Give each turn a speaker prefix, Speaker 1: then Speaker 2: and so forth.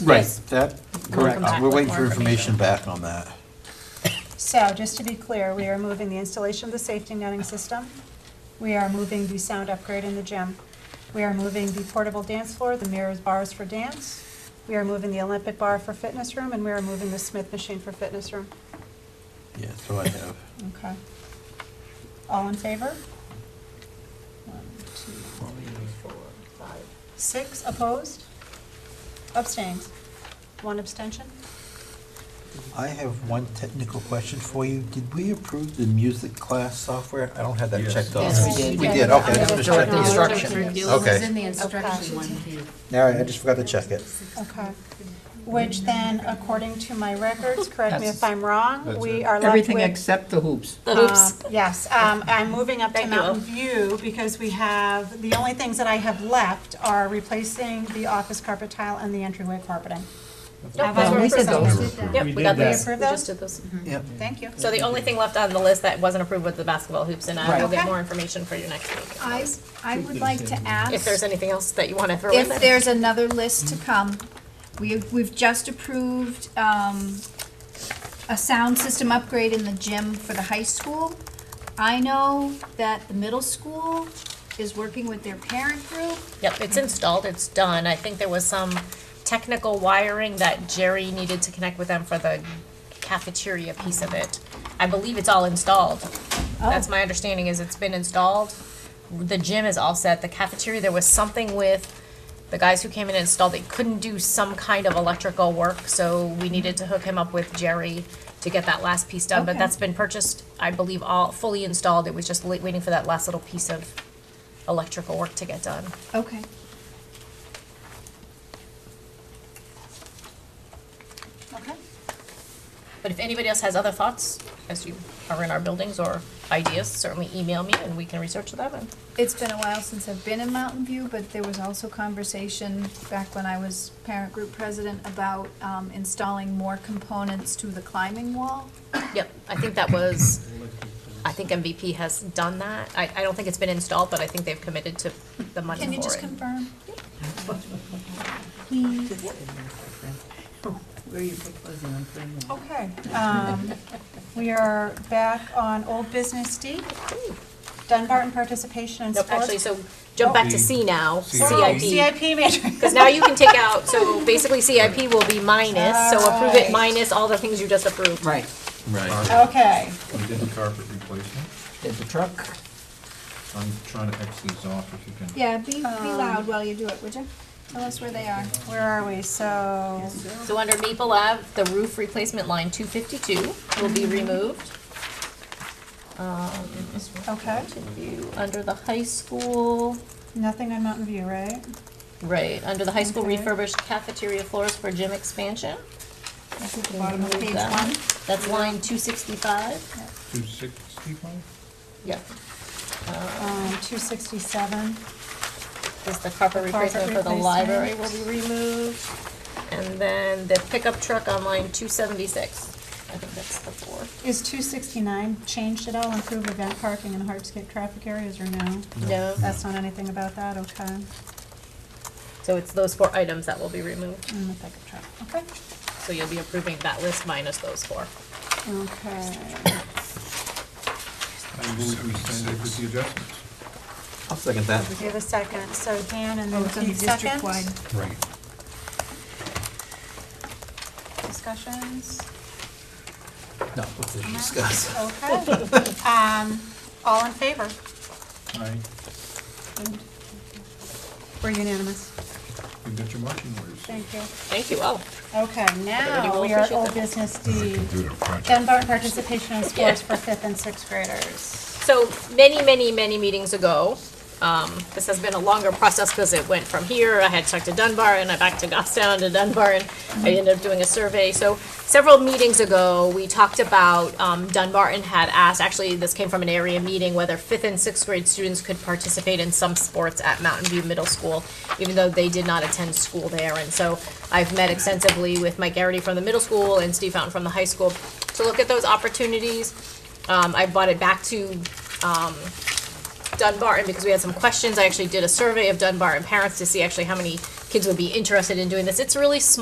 Speaker 1: Right,
Speaker 2: Yes.
Speaker 1: that,
Speaker 2: Correct.
Speaker 1: correct. We're waiting for
Speaker 2: More information.
Speaker 1: information back on that.
Speaker 3: So, just to be clear, we are moving the installation of the safety netting system. We are moving the sound upgrade in the gym. We are moving the portable dance floor, the mirrors bars for dance. We are moving the Olympic bar for fitness room, and we are moving the Smith machine for fitness room.
Speaker 1: Yeah, so I have.
Speaker 3: Okay. All in favor? One, two, three, four, five, six opposed? Abstains? One abstention?
Speaker 1: I have one technical question for you. Did we approve the music class software? I don't have that
Speaker 4: Yes.
Speaker 1: checked off.
Speaker 2: Yes,
Speaker 5: we did.
Speaker 1: We did, okay.
Speaker 2: Yeah.
Speaker 1: just
Speaker 2: Just
Speaker 1: checking.
Speaker 2: the instruction.
Speaker 1: Okay.
Speaker 5: in the instruction one here.
Speaker 1: All right, I just forgot to check it.
Speaker 3: Okay. Which then, according to my records, correct me if
Speaker 2: That's-
Speaker 3: I'm wrong,
Speaker 4: That's
Speaker 3: we
Speaker 4: it.
Speaker 3: are left
Speaker 2: Everything
Speaker 3: with.
Speaker 2: except the hoops.
Speaker 3: um, Yes, um, I'm moving up to
Speaker 6: Thank you.
Speaker 3: Mountain View because we have, the only things that I have left are replacing the office carpet tile and the entryway carpeting. Have I
Speaker 6: those were
Speaker 2: We said
Speaker 3: approved?
Speaker 2: those.
Speaker 6: Yep,
Speaker 4: We
Speaker 6: we
Speaker 4: did
Speaker 6: got
Speaker 4: that.
Speaker 6: those.
Speaker 3: We
Speaker 6: We
Speaker 3: approved
Speaker 6: just did those.
Speaker 1: Yep.
Speaker 3: Thank you.
Speaker 6: So the only thing left on the list that wasn't approved was the basketball hoops, and I will
Speaker 3: Okay.
Speaker 6: get more information for you next week.
Speaker 5: I, I would like to ask.
Speaker 6: If there's anything else that you want to throw in
Speaker 5: If
Speaker 6: there.
Speaker 5: there's another list to come, we, we've just approved, um, a sound system upgrade in the gym for the high school. I know that the middle school is working with their parent group.
Speaker 6: Yep, it's installed, it's done. I think there was some technical wiring that Jerry needed to connect with them for the cafeteria piece of it. I believe it's all installed. That's my understanding is it's been installed. The gym is all set. The cafeteria, there was something with the guys who came in and installed, they couldn't do some kind of electrical work, so we needed to hook him up with Jerry to get that last piece done, but
Speaker 5: Okay.
Speaker 6: that's been purchased, I believe, all fully installed. It was just late waiting for that last little piece of electrical work to get done.
Speaker 5: Okay.
Speaker 3: Okay.
Speaker 6: But if anybody else has other thoughts, as you are in our buildings or ideas, certainly email me and we can research them and.
Speaker 5: It's been a while since I've been in Mountain View, but there was also conversation back when I was parent group president about, um, installing more components to the climbing wall.
Speaker 6: Yep, I think that was, I think MVP has done that. I, I don't think it's been installed, but I think they've committed to the money for it.
Speaker 5: Can you just confirm?
Speaker 7: Where are you proposing on putting them?
Speaker 3: Okay, um, we are back on old business D, Dunbarton participation in
Speaker 6: Nope,
Speaker 3: sports.
Speaker 6: actually, so jump back to C now,
Speaker 3: Oh,
Speaker 6: CIP.
Speaker 3: CIP matrix.
Speaker 6: Because now you can take out, so basically CIP will be minus, so approve
Speaker 3: Alright.
Speaker 6: it minus all the things you just approved.
Speaker 2: Right,
Speaker 4: Right.
Speaker 3: Okay,
Speaker 4: We did the carpet replacement.
Speaker 2: did the truck.
Speaker 4: I'm trying to X these off if you can.
Speaker 5: Yeah, be, be loud while you do it, would you? Tell us where they are.
Speaker 3: where are we? So,
Speaker 6: So under Maple Ave, the roof replacement line two fifty-two will be removed.
Speaker 3: okay,
Speaker 6: You- Under the high school,
Speaker 3: nothing on Mountain View, right?
Speaker 6: right, under the high school
Speaker 3: Okay.
Speaker 6: refurbished cafeteria floors for gym expansion.
Speaker 3: That's at the bottom of
Speaker 6: Remove
Speaker 5: page
Speaker 6: that.
Speaker 5: one.
Speaker 6: That's line two sixty-five.
Speaker 4: Two sixty-five?
Speaker 6: Yeah.
Speaker 3: Um, two sixty-seven,
Speaker 6: Uh, Is the carpet
Speaker 3: The carpet
Speaker 6: replacement for the
Speaker 3: replacement.
Speaker 6: library will be removed. And then the pickup truck on line two seventy-six. I think that's the four.
Speaker 3: is two sixty-nine changed at all, improve event parking in hardscape traffic areas or no?
Speaker 6: No.
Speaker 3: That's not anything about that, okay.
Speaker 6: So it's those four items that will be removed.
Speaker 3: Mm, if I could try. Okay.
Speaker 6: So you'll be approving that list minus those four.
Speaker 3: Okay.
Speaker 4: I move we send it with the adjustments.
Speaker 1: I'll second that.
Speaker 3: We have a second, so Dan and
Speaker 5: Oh,
Speaker 3: then
Speaker 5: it's on the
Speaker 3: Keith second.
Speaker 5: district-wide.
Speaker 1: Right.
Speaker 3: Discussions?
Speaker 1: No, what did you discuss?
Speaker 3: Okay. Um, all in favor?
Speaker 4: Aye,
Speaker 3: We're unanimous.
Speaker 4: you got your marching orders.
Speaker 3: Thank you.
Speaker 6: Thank you all.
Speaker 3: Okay,
Speaker 6: Everybody
Speaker 3: now
Speaker 6: will
Speaker 3: we are
Speaker 6: appreciate
Speaker 3: old
Speaker 6: that.
Speaker 3: business D.
Speaker 8: Computer project.
Speaker 3: Dunbar participation in sports
Speaker 6: Yeah.
Speaker 3: for fifth and sixth graders.
Speaker 6: So many, many, many meetings ago, um, this has been a longer process because it went from here, I had talked to Dunbar and I back to Goffstown to Dunbar and I ended up doing a survey. So several meetings ago, we talked about, um, Dunbarton had asked, actually, this came from an area meeting, whether fifth and sixth grade students could participate in some sports at Mountain View Middle School, even though they did not attend school there. And so I've met extensively with Mike Garrity from the middle school and Steve Fountain from the high school to look at those opportunities. Um, I brought it back to Dunbarton because we had some questions. I actually did a survey of Dunbarton parents to see actually how many kids would be interested in doing this. It's really small.